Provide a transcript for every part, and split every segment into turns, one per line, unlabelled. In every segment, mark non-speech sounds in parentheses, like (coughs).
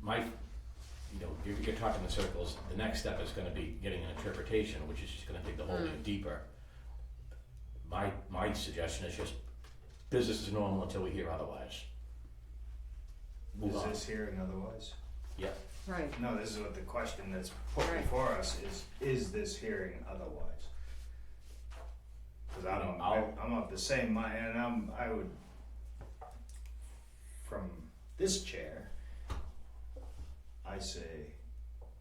my, you know, you're, you're talking in circles, the next step is gonna be getting an interpretation, which is just gonna dig the whole thing deeper. My, my suggestion is just, business is normal until we hear otherwise. Move
Is
on,
this hearing otherwise?
yeah,
Right,
No, this is what the question that's put
Right.
before us is, is this hearing otherwise? Cause I don't,
I'll-
I'm of the same mind, and I'm, I would, from this chair, I say,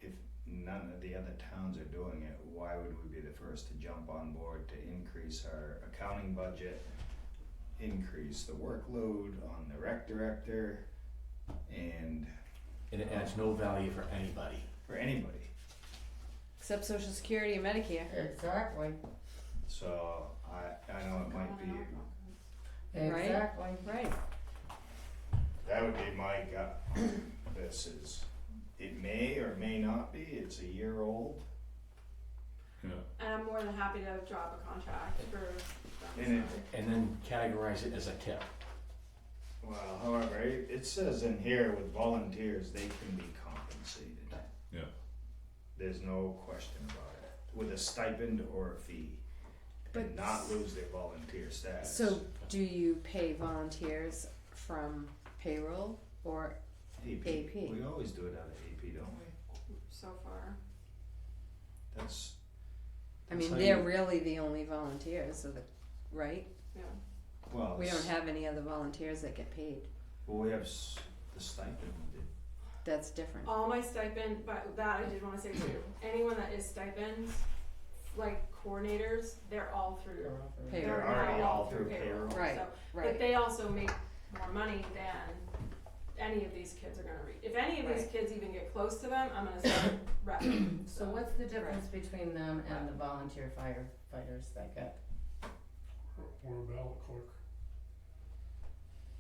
if none of the other towns are doing it, why would we be the first to jump on board to increase our accounting budget? Increase the workload on the rec director and
and it adds no value for anybody.
for anybody.
except social security and Medicare.
Exactly,
So I, I know it might be,
Right.
exactly.
Right,
that would be my gut. This is, it may or may not be, it's a year old.
And I'm more than happy to drop a contract for. that
And it-
summer.
And then categorize it as a tip.
Well, however, it, it says in here with volunteers, they can be compensated.
Yeah.
There's no question about it, with a stipend or a fee,
But
and not lose their volunteer status.
so do you pay volunteers from payroll or,
AP,
AP.
we always do it out of AP, don't we?
So far,
That's,
I
That's
mean,
how
they're
you-
really the only volunteers, so the, right?
yeah.
well,
We don't
it's-
have any other volunteers that get paid,
well, we have s- the stipend,
that's different.
All my stipend, but that I did wanna say too, anyone that is stipends, like coordinators, they're all through.
Payroll.
They're
They're already
now
all through payroll.
Right,
so- But
Right,
they also make more money than any of these kids are gonna read. If any of these
Right.
kids even get close to them, I'm gonna (coughs) start repping,
So
so.
what's the difference between them and the volunteer firefighters that got,
We're a ballot clerk.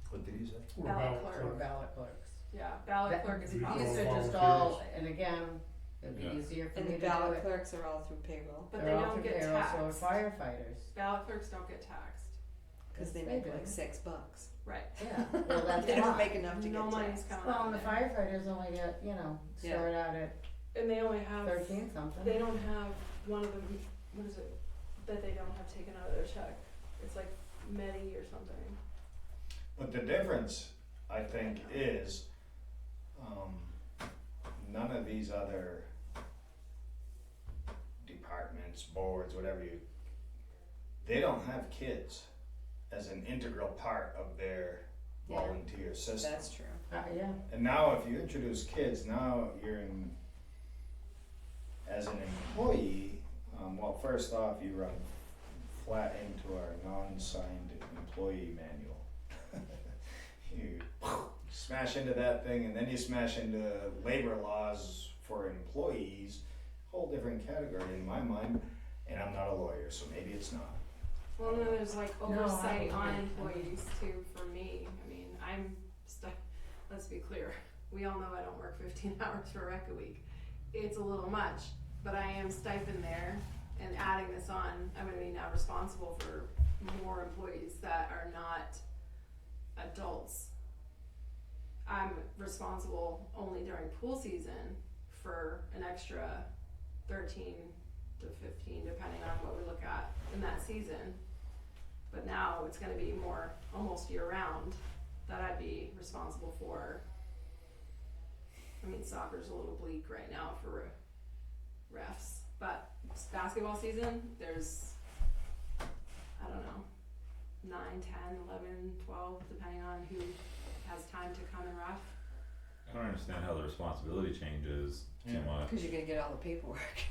what did he say?
We're a
Ballot
ballot
clerk.
or
clerk.
ballot clerks?
Yeah, ballot
That-
clerk is
We
These
All
probably,
are just
volunteers.
all, and again, it'd
Yeah.
be easier for
and
me
the
to do it.
ballot clerks are all through payroll,
but they
They're all
don't
through
get
payroll, so are
taxed.
firefighters. (laughs)
Ballot clerks don't get taxed,
cause they
Yes,
make
do.
like six bucks.
right.
Yeah, well, that's
They don't
why.
make enough to
No
get
money's
taxed.
coming
Well,
out
and the
of there.
firefighters only get, you know,
Yeah.
start out at
And they only have.
thirteen something. Uh,
They don't have one of them. What is it that they don't have taken out of their check? It's like Medi or something.
But the difference, I think, is um, none of these other departments, boards, whatever you, they don't have kids as an integral part of their
Yeah.
volunteer system.
That's true.
Uh, yeah,
And now if you introduce kids, now you're in, as an employee, um, well, first off, you run flat into our non-signed employee manual. (laughs) you smash into that thing and then you smash into labor laws for employees, whole different category in my mind, and I'm not a lawyer, so maybe it's not.
Well, then there's like
I
oversight
don't
on
think-
employees too. For me, I mean, I'm stuck. Let's be clear. We all know I don't work 15 (laughs) hours for rec a week. It's a little much, but I am stipend there, and adding this on, I'm going to be now responsible for more employees that are not adults. I'm responsible only during pool season for an extra 13 to 15, depending on what we look at in that season. But now it's going to be more almost year round that I'd be responsible for. I mean, soccer's a little bleak right now for refs, but it's basketball season, there's, I don't know, 9, 10, 11, 12, depending on who has time to come and ref.
I don't understand how the responsibility changes too
Yeah.
much.
Cause you're gonna get all the paperwork,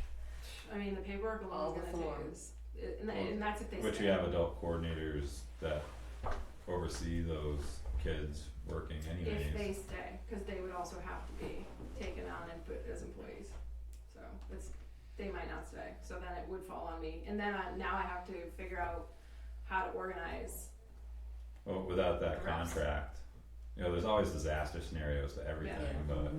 I mean, the paperwork
all
alone
the
is going to
forms.
take, and, and that's if they
But
stay.
you have adult coordinators that oversee those kids working
if they
anyways.
stay, because they would also have to be taken on and put as employees. So it's, they might not stay, so then it would fall on me, and then I, now I have to figure out how to organize.
Well, without that
Perhaps.
contract, you know, there's always disaster scenarios to everything,
yeah.
but,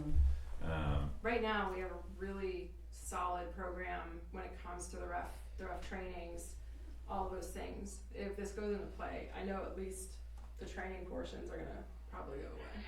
mhm.
um,
Right now, we have a really solid program when it comes to the ref, the ref trainings, all those things. If this goes into play, I know at least the training portions are gonna probably go away.